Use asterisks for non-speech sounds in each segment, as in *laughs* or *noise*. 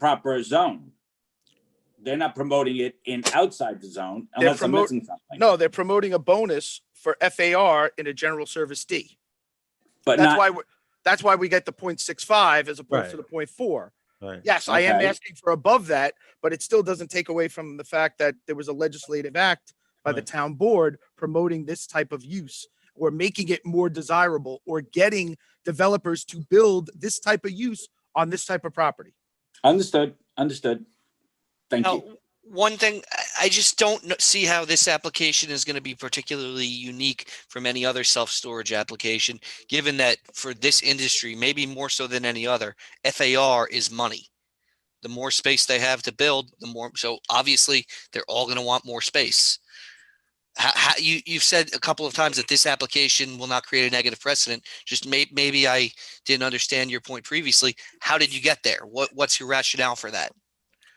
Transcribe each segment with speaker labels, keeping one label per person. Speaker 1: proper zone. They're not promoting it in outside the zone
Speaker 2: They're
Speaker 1: unless I'm
Speaker 2: promote-
Speaker 1: missing something.
Speaker 2: No, they're promoting a bonus for FAR in a general service D.
Speaker 1: But
Speaker 2: That's
Speaker 1: not,
Speaker 2: why, we're that's why we get the point six five as opposed to the
Speaker 3: Right.
Speaker 2: point four.
Speaker 3: Right.
Speaker 2: Yes, I am
Speaker 1: Okay.
Speaker 2: asking for above that, but it still doesn't take away from the fact that there was a legislative act by the
Speaker 3: Right.
Speaker 2: town board promoting this type of use or making it more desirable or getting developers to build this type of use on this type of property.
Speaker 1: understood, understood. Thank
Speaker 4: Now,
Speaker 1: you.
Speaker 4: one thing, I- I just don't kn- see how this application is going to be particularly unique from any other self-storage application, given that for this industry, maybe more so than any other, FAR is money. The more space they have to build, the more, so obviously, they're all going to want more space. How, how, you, you've said a couple of times that this application will not create a negative precedent. Just may, maybe I didn't understand your point previously. How did you get there? What, what's your rationale for that?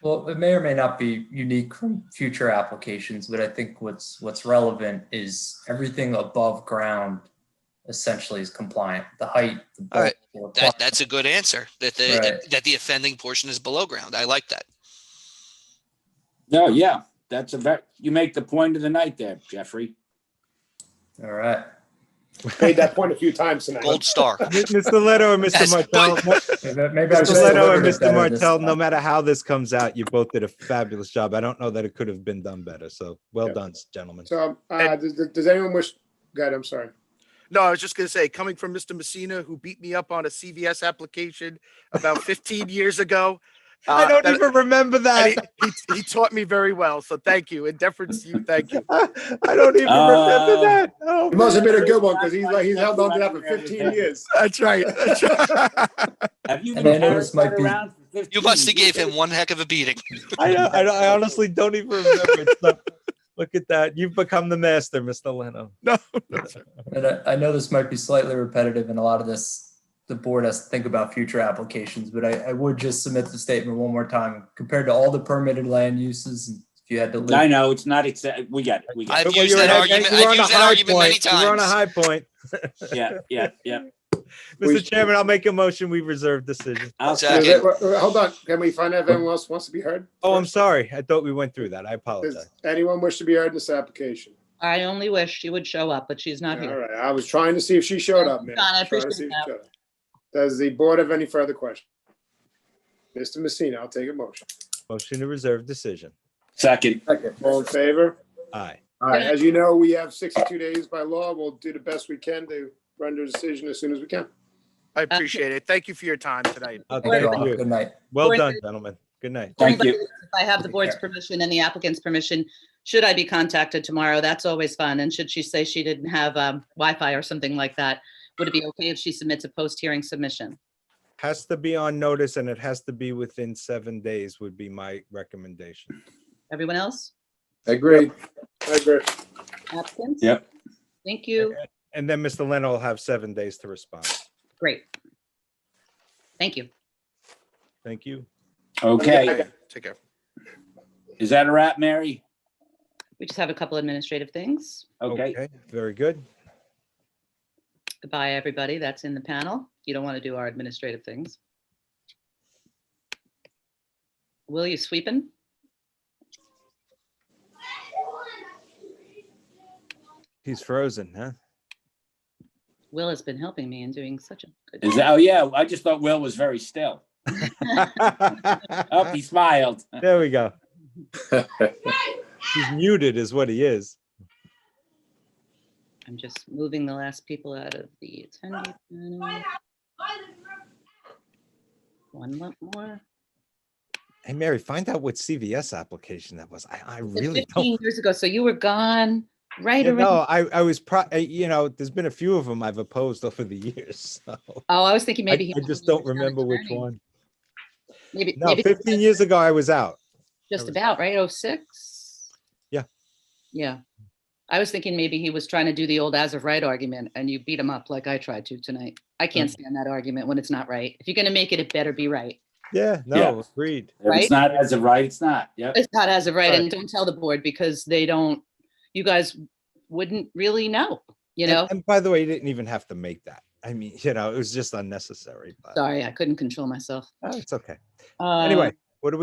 Speaker 5: Well, it may or may not be unique from future applications, but I think what's what's relevant is everything above ground essentially is compliant. The height, the
Speaker 4: All right.
Speaker 5: bulk, the
Speaker 4: That, that's a good answer, that the,
Speaker 5: Right.
Speaker 4: that the offending portion is below ground. I like that.
Speaker 1: No, yeah, that's a very, you make the point of the night there, Jeffrey.
Speaker 5: requirement. All right.
Speaker 6: made that point a few times tonight.
Speaker 4: Gold star.
Speaker 3: Mr. Leto or
Speaker 4: Yes,
Speaker 3: Mr. Martel,
Speaker 5: Maybe- Maybe I was
Speaker 3: Mr.
Speaker 5: just
Speaker 3: Leto or
Speaker 5: delivering it
Speaker 3: Mr.
Speaker 5: better this
Speaker 3: Martel, no
Speaker 5: time.
Speaker 3: matter how this comes out, you both did a fabulous job. I don't know that it could have been done better. So well
Speaker 6: Yeah.
Speaker 3: done, gentlemen.
Speaker 6: So, uh, does, does anyone wish, God, I'm sorry.
Speaker 2: No, I was just gonna say, coming from Mr. Messina, who beat me up on a CVS application
Speaker 3: *laughs*
Speaker 2: about fifteen years ago.
Speaker 3: I
Speaker 2: uh,
Speaker 3: don't
Speaker 2: that-
Speaker 3: even remember
Speaker 2: and
Speaker 3: that.
Speaker 2: he, he, he taught me very well, so thank you. In deference to you, thank you.
Speaker 3: *laughs* I don't even
Speaker 1: Uh,
Speaker 3: remember that. Oh,
Speaker 6: It must have
Speaker 3: man.
Speaker 6: been a good one because he's like, he's held on to that for 15 *laughs* years.
Speaker 2: That's right. That's right.
Speaker 1: Have you
Speaker 5: And
Speaker 1: been
Speaker 5: I know this might
Speaker 1: carrying that
Speaker 5: be-
Speaker 1: around for 15?
Speaker 4: You must have gave him one heck of a beating.
Speaker 3: I, don't- I, don't- I honestly don't even remember. It's not- Look at that. You've become the master, Mr. *laughs* Leno.
Speaker 5: And I, I know this might be slightly repetitive, and a lot of this, the board has to think about future applications, but I, I would just submit the statement one more time. Compared to all the permitted land uses, if you had to.
Speaker 1: I
Speaker 5: list-
Speaker 1: know, it's not, accept- we got it, we got
Speaker 3: But
Speaker 4: I've
Speaker 1: it.
Speaker 3: when
Speaker 4: used
Speaker 3: you're
Speaker 4: that
Speaker 3: at-
Speaker 4: argument,
Speaker 3: you were
Speaker 4: I've
Speaker 3: on a
Speaker 4: used that
Speaker 3: high
Speaker 4: argument many
Speaker 3: point. You were on a
Speaker 4: times.
Speaker 3: high point.
Speaker 1: Yeah, yeah, yeah.
Speaker 6: We-
Speaker 3: Mr. Chairman, I'll make a motion. We reserve decision.
Speaker 1: I'll
Speaker 6: Is
Speaker 1: second.
Speaker 4: Second.
Speaker 6: it- wait, wait, uh, Hold on, can we find out if anyone else wants to be heard?
Speaker 3: Oh, I'm sorry. I thought we went through that. I
Speaker 6: Does
Speaker 3: apologize.
Speaker 6: anyone wish to be heard in this application?
Speaker 7: I only wish she would show up, but she's
Speaker 6: All
Speaker 7: not here.
Speaker 6: right, I was trying to see if she showed up, man.
Speaker 7: John,
Speaker 6: Trying
Speaker 7: I
Speaker 6: to see
Speaker 7: appreciate
Speaker 6: if she showed up. Does the board have any further questions? Mr. Messina, I'll take a motion.
Speaker 3: Motion to reserve decision.
Speaker 1: Second,
Speaker 6: All in favor?
Speaker 3: Aye.
Speaker 6: All right, as you know, we have 62 days by law. We'll do the best we can to render a decision as soon as we can.
Speaker 2: I appreciate it. Thank you for your time tonight.
Speaker 3: I'll
Speaker 5: Thank you
Speaker 3: thank
Speaker 5: all.
Speaker 3: you.
Speaker 5: Good night.
Speaker 3: Well
Speaker 7: Or-
Speaker 3: done, gentlemen. Good night.
Speaker 1: thank you.
Speaker 7: If I have the board's permission and the applicant's permission, should I be contacted tomorrow? That's always fun. And should she say she didn't have um, Wi-Fi or something like that, would it be okay if she submits a post-hearing submission?
Speaker 3: Has to be on notice and it has to be within seven days would be my recommendation.
Speaker 7: Everyone else?
Speaker 6: Agreed. I agree.
Speaker 7: Applicants?
Speaker 1: Yep.
Speaker 7: Thank you.
Speaker 3: And then Mr. Leno will have seven days to respond.
Speaker 7: Great. Thank you.
Speaker 3: Thank you.
Speaker 1: Okay,
Speaker 2: Take care.
Speaker 1: is that a wrap, Mary?
Speaker 7: We just have a couple administrative things.
Speaker 1: Okay,
Speaker 3: Very good.
Speaker 7: Goodbye, everybody that's in the panel. You don't want to do our administrative things. Will you sweeping?
Speaker 3: He's frozen, huh? *laughs*
Speaker 7: Will has been helping me and doing such a good.
Speaker 1: is that, oh yeah, I just thought Will was very still. Oh, he smiled.
Speaker 3: There we go. He's muted is what he is.
Speaker 7: I'm just moving the last people out of the attendee panel. One lo- more.
Speaker 3: Hey, Mary, find out what CVS application that was. I, I really
Speaker 7: It's
Speaker 3: don't.
Speaker 7: Fifteen years ago, so you were gone right
Speaker 3: You know,
Speaker 7: around.
Speaker 3: I, I was pro, I- you know, there's been a few of them I've opposed over the years. *laughs* So
Speaker 7: Oh, I was thinking
Speaker 3: I,
Speaker 7: maybe. he
Speaker 3: I
Speaker 7: was
Speaker 3: just
Speaker 7: when you
Speaker 3: don't
Speaker 7: were
Speaker 3: remember which
Speaker 7: starting.
Speaker 3: one.
Speaker 7: Maybe,
Speaker 3: No,
Speaker 7: maybe
Speaker 3: 15 years ago, I was out.
Speaker 7: just
Speaker 3: was-
Speaker 7: about, right? Oh, six?
Speaker 3: Yeah.
Speaker 7: Yeah. I was thinking maybe he was trying to do the old as of right argument and you beat him up like I tried to tonight. I
Speaker 3: Mm.
Speaker 7: can't stand that argument when it's not right. If you're going to make it, it better be right.
Speaker 3: Yeah, no, agreed.
Speaker 1: If it's
Speaker 7: Right?
Speaker 1: not as of right, it's not. Yep.
Speaker 7: It's not as of right
Speaker 3: Right.
Speaker 7: and don't tell the board because they don't, you guys wouldn't really know, you
Speaker 3: And-
Speaker 7: know?
Speaker 3: And by the way, you didn't even have to make that. I *laughs* mean, you know, it was just unnecessary, but
Speaker 7: Sorry, I couldn't control myself.
Speaker 3: oh, it's okay.
Speaker 7: Um,
Speaker 3: Anyway,